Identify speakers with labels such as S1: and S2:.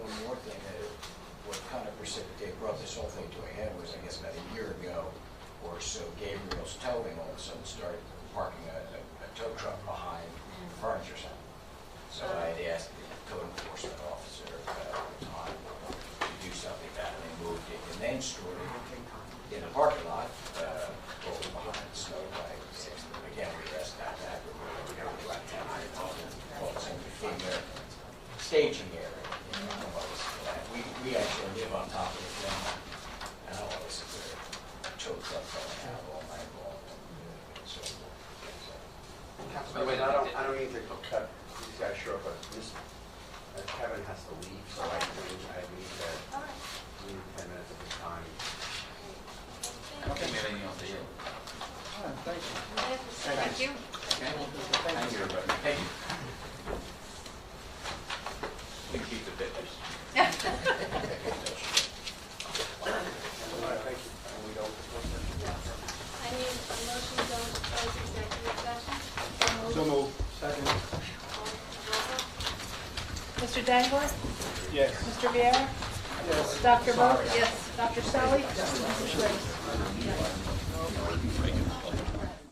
S1: sulfate to a head was, I guess, about a year ago or so, Gabriel's Towing all of a sudden started parking a, a a tow truck behind furniture center. So I had asked the code enforcement officer uh, at the time to do something about it, and they moved it, and then stored it in the parking lot, uh, over behind the snow by six, but again, we asked that, that, we were going to ten hundred dollars, all the same, in their staging area. you know, what was that. uh, We, we actually live on top of the ground, and I always uh, choke up going out all night long. and so forth.
S2: Councilman, wait, I don't, I don't need to cut these guys short, but this, uh, Kevin has to leave, so I think I need to, we need ten minutes of his time.
S3: I don't think we have anything else to do.
S4: Thank you.
S1: Thank you, everybody. Thank you.
S3: We can keep the pictures.
S2: All right, thank you. And we don't,
S5: I need a motion to go into closed executive session.
S6: So moved. Second.
S4: Mr. Dangler?
S6: Yes.
S4: Mr. Viera? Dr. Vogt?
S1: Sorry.
S4: Dr. Selly? Mrs. Grace?